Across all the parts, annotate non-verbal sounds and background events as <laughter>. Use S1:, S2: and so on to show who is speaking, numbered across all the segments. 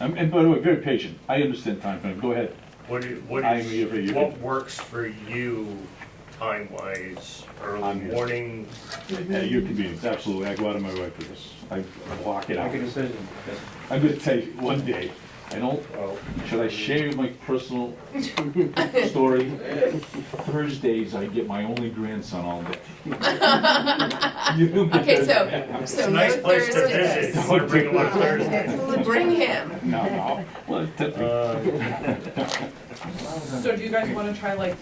S1: I'm- And by the way, very patient, I understand time frame, go ahead.
S2: What do you, what
S1: I'm here for
S2: is,
S1: you.
S2: what works for you time-wise,
S1: I'm
S2: early
S1: here.
S2: morning?
S3: Mm-hmm.
S1: At your convenience, absolutely, I go out of my way for this, I I block it out.
S4: Make a decision.
S1: I'm gonna take one day, I don't,
S2: Well,
S1: should I share my
S3: <laughs>
S1: personal story? Thursdays, I get my only grandson all
S3: <laughs>
S1: day.
S3: Okay, so,
S2: It's
S3: so
S2: a
S3: no
S2: nice place to visit,
S3: Thursdays.
S1: <laughs>
S2: you wanna bring him on Thursday.
S3: Well, Bring him.
S1: No, no, well, technically,
S2: Uh,
S5: So do you guys wanna try like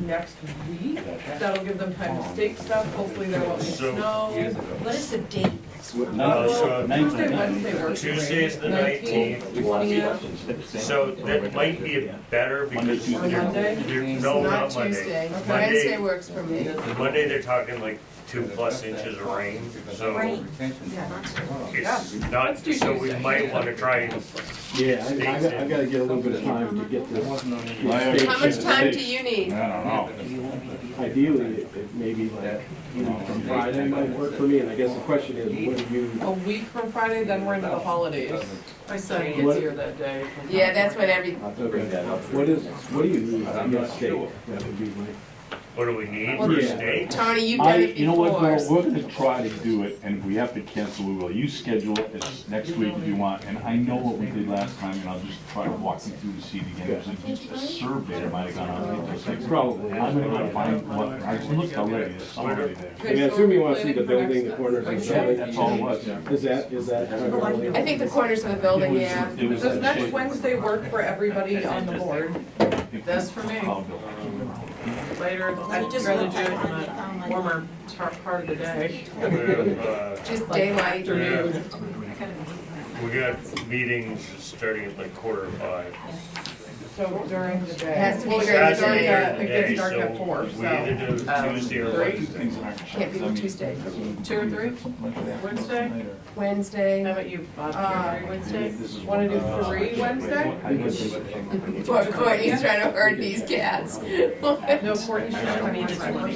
S5: next week? That'll give them time to stake stuff, hopefully there won't be
S2: So-
S5: snow.
S3: What is the date?
S2: Uh, so
S5: Tuesday, Wednesday works great.
S2: Tuesday is the 19th,
S5: Twentieth,
S2: So that might be better because
S1: Monday,
S2: you're,
S1: Tuesday.
S2: you're, no, not
S3: Not
S2: Monday.
S3: Tuesday.
S5: Okay.
S3: Wednesday works for me.
S2: Monday, they're talking like two plus inches of rain, so it's not,
S5: Let's do
S2: so we
S5: Tuesday.
S2: might wanna try and,
S6: Yeah, I, I got- I gotta get a little bit of time to get this,
S3: How much time do you
S1: I
S3: need?
S1: don't know.
S6: ideally, it- it maybe like, you know, from Friday might work for me, and I guess the question is, what do you,
S5: a week from Friday, then we're into the holidays. My son gets
S6: What-
S5: here that day. from-
S3: Yeah, that's what every,
S6: what is, what do you need, I guess, state, that would be my.
S2: what do we need
S3: Well,
S2: for
S6: yeah.
S2: stakes?
S3: Tony, you've
S1: I,
S3: done it
S1: you know what,
S3: before.
S1: Bill, we're gonna try to do it, and if we have to cancel, we will. You schedule it as next week if you want, and I know what we did last time, and I'll just try to walk you through to see it again. There's a- just a survey that might have gone on, I think, like,
S6: Probably.
S1: I'm gonna go find one, I looked already, there's somebody there.
S6: I mean, I assume you wanna see the building, the corners and
S1: Yeah,
S6: everything.
S1: That's all it was. It
S6: Is that, is that?
S3: I think the corners of the building,
S1: was-
S3: yeah.
S1: It was.
S5: Does next Wednesday work for everybody on the board?
S1: That's
S5: for me.
S1: Oh, Bill.
S5: Later, I'd rather do it in
S7: Um,
S5: the warmer tar- part of the day.
S2: We have, uh,
S3: Just daylight.
S2: we have- we got meetings starting at like quarter of five.
S5: So during the day.
S3: has to be
S5: Well,
S3: during the
S5: during
S3: day.
S5: It gets dark at four,
S2: We either
S5: so.
S2: do
S5: um,
S2: Tuesday or
S5: three.
S1: Two
S2: Wednesday.
S1: things aren't checked,
S3: Can't be
S1: I mean,
S3: Tuesday.
S5: Two or three? Wednesday? How
S3: Wednesday,
S5: about you, Bob?
S3: Uh,
S5: Three Wednesday?
S1: This is-
S5: Wanna do
S1: uh,
S5: three Wednesday?
S3: poor Courtney's trying to herd these cats. <laughs>
S5: No, Courtney's not meeting tomorrow.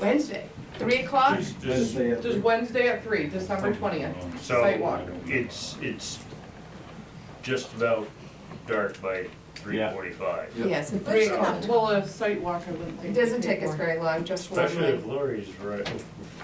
S3: Wednesday, three o'clock?
S2: Just- just-
S5: Just Wednesday at three, December twentieth, site walk.
S2: So it's, it's just about dark by three forty-five.
S3: Yes, at three o'clock.
S5: Well, a site walk, I wouldn't think.
S3: It doesn't take us very long, just one.
S2: Especially if Lori's right.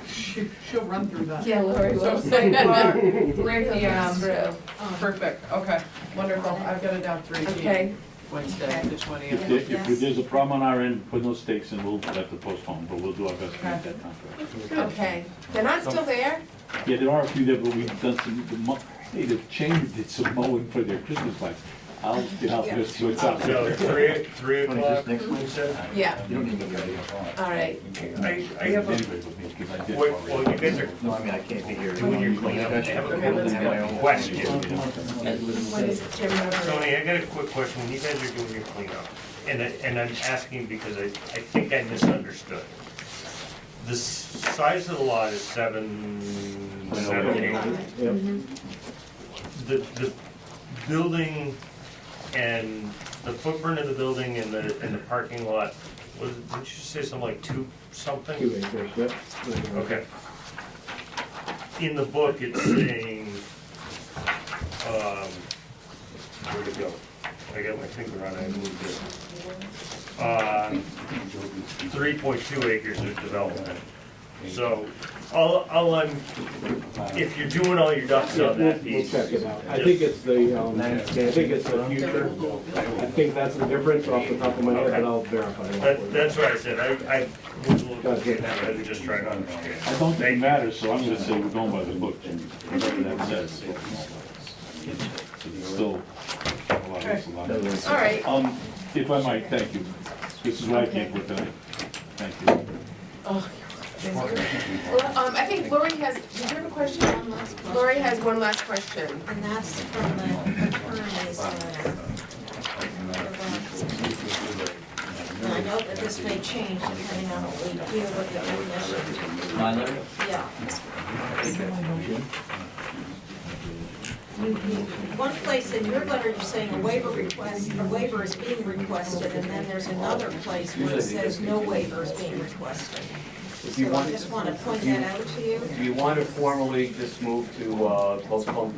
S5: She- She'll run through that.
S3: Yeah, Lori
S2: <laughs>
S5: So
S3: will.
S5: site
S3: <laughs>
S5: walk,
S3: Three
S5: three P M.
S3: p.m.
S7: um,
S5: Perfect, okay, wonderful, I've got it down three P M.
S3: Okay,
S5: Wednesday, the
S1: If,
S5: twentieth.
S1: there- if there's a problem on our end, put those stakes in, we'll have to postpone, but we'll do our best to make that time. for it.
S3: okay. They're not still there?
S1: Yeah, there are a few there, but we've done some, the mo- hey, the chamber did some mowing for their Christmas lights. I'll get out there, see what's out
S2: So
S1: there.
S2: three, three o'clock,
S8: next
S2: you said?
S3: Yeah,
S8: You don't need to be ready for it.
S3: all right.
S2: I, I have a,
S1: Anyway, with me, 'cause I did
S2: well,
S1: already.
S2: well, you guys are
S8: No, I mean, I can't be here.
S2: doing your cleanup, I have a quick question.
S3: What is it, Jim?
S2: Tony, I got a quick question, when you guys are doing your cleanup, and I, and I'm asking because I, I think I misunderstood. The s- size of the lot is seven, seven, eight.
S3: Mm-hmm.
S2: the, the building and the footprint of the building and the, and the parking lot, was, didn't you say something like two something? Okay. In the book, it's saying, um, where'd it go? I got my finger on it, I moved it. Uh, three point two acres of development. So, all, all I'm, if you're doing all your ducks
S6: Yeah,
S2: on
S6: we'll,
S2: that
S6: we'll
S2: piece,
S6: check it out. I think it's the, um, I think it's the future. I think that's the difference off the top of my head, but I'll verify. that for
S2: That,
S6: you.
S2: that's what I said, I, I was a little confused, I was just trying to
S1: I
S2: understand.
S1: don't think it matters, so I'm gonna say we're going by the book, Jimmy, whatever that says. It's Still, a lot, it's a lot.
S3: All right,
S1: Um, if I might, thank you. This is why I came for tonight. Thank you.
S3: Well, um, I think Lori has, did you have a question? Lori has one last question.
S7: And that's from the uh, attorney's letter. And I know that this may change depending on what we do with the definition. Yeah. You- you- One place in your letter, you're saying a waiver request, a waiver is being requested, and then there's another place where it says no waiver is being requested.
S4: If you
S7: So I
S4: want,
S7: just want to point that out to you.
S4: if you want to formally just move to, uh, postpone